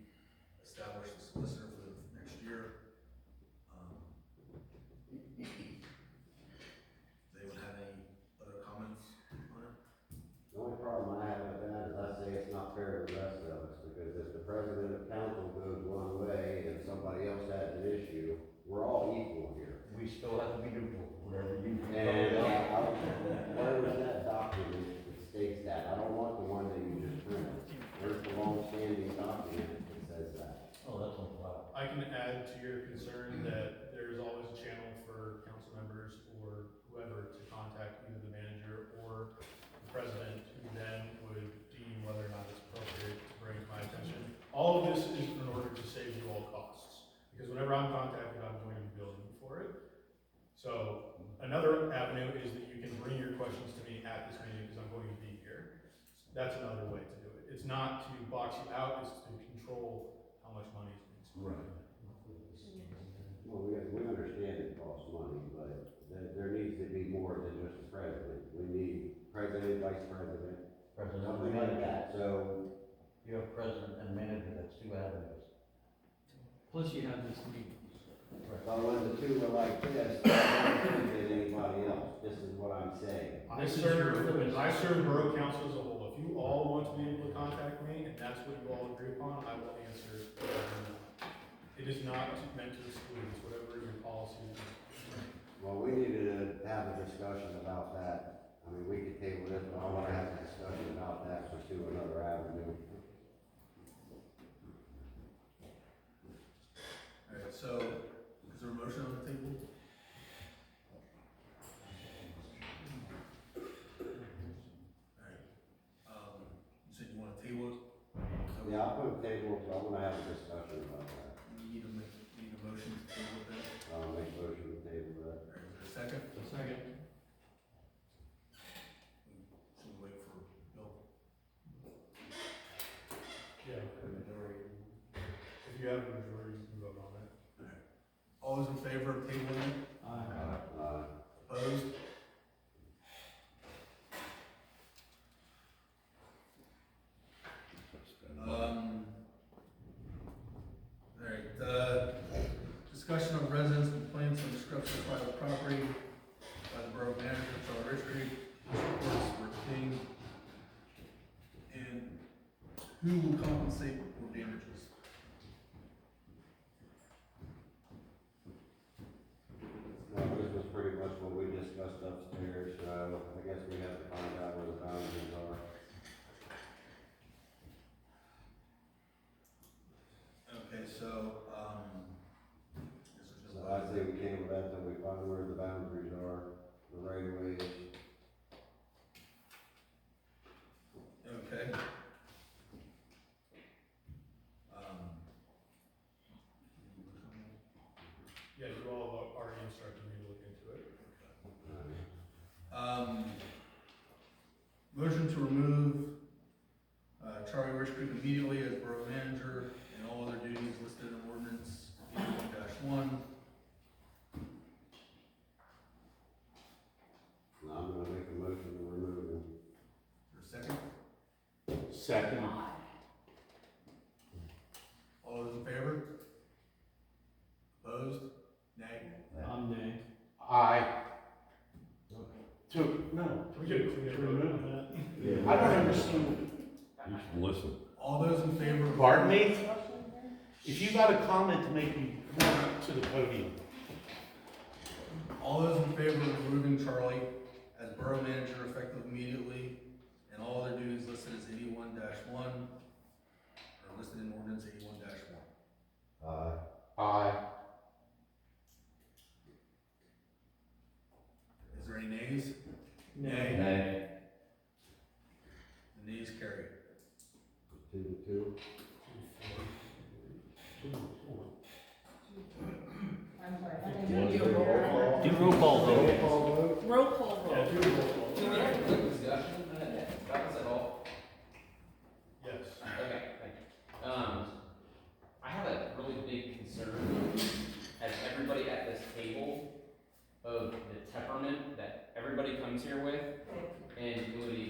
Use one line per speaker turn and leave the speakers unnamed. Um,
the panel goes one way and somebody else has an issue, we're all equal here.
We still have to be neutral, whatever you.
And, uh, I- where was that document that states that? I don't want the one that you just printed. There's the long-standing document that says that.
Oh, that's on file.
I can add to your concern that there is always a channel for council members or whoever to contact either the manager or the president, who then would deem whether or not it's appropriate to bring it to my attention. All of this is in order to save you all costs, because whenever I'm contacted, I'm going to be billing you for it. So another avenue is that you can bring your questions to me at this meeting, because I'm going to be here. That's another way to do it. It's not to box you out, it's to control how much money is being spent.
Right.
Well, we, we understand it costs money, but there, there needs to be more than just a president. We need president, vice president,
President and
something like
manager.
that. So,
You have president and manager, that's two avenues.
Plus you have this meeting.
but when the two are like this, I don't think that anybody else, this is what I'm saying.
I
This is
serve,
your-
I serve borough council as a whole. If you all want to be able to contact me and that's what you all agree upon, I will answer. whatever you want. It is not meant to exclude, it's whatever your policy is.
Well, we need to have a discussion about that. I mean, we could table this, but I wanna have a discussion about that, pursue another avenue.
Alright, so, is there a motion on the table? Alright, um, you said you wanna table it? So we-
Yeah, I'll put a table, but I wanna have a discussion about that.
We need to make, need a motion to table that,
I'll make a motion to table that.
alright, is there a second?
second.
Should we wait for Bill?
Yeah. If you have a majority, you can vote on it.
All those in favor of tabling it,
Aye.
Uh,
opposed? Um, alright, uh, discussion of residents complaints on destruction of private property by the borough manager, Charlie Rich Creek, reports were king. And who will compensate for damages?
Well, this was pretty much what we discussed upstairs, so I guess we have to find out where the boundaries are.
Okay, so, um. this is just-
So I say we table that till we find where the boundaries are, the right of ways.
Okay. Um.
Yeah, you all already instructed me to look into it.
Uh,
Um, motion to remove, uh, Charlie Rich Creek immediately as borough manager and all other duties listed in ordinance eighty-one one.
And I'm gonna make a motion to remove them.
For a second,
Second.
all those in favor? Opposed? Nay?
I'm nay.
Aye. Two, no.
Can we get a clear vote on that?
I don't understand.
Listen,
All those in favor? of-
Pardon me? If you got a comment to make, me come on up to the podium.
All those in favor of removing Charlie as borough manager effective immediately and all other duties listed as eighty-one one are listed in ordinance eighty-one one.
Uh,
Aye.
Is there any nays?
Nay.
The nays carry.
two to two.
Do
Do roll
Roll
Do roll call
call.
vote.
call vote?
Roll call
Yeah, do
vote.
a roll call.
discussion, that was at all,
Yes.
okay, thank you. Um, I have a really big concern, as everybody at this table, of the temperament that everybody comes here with, and including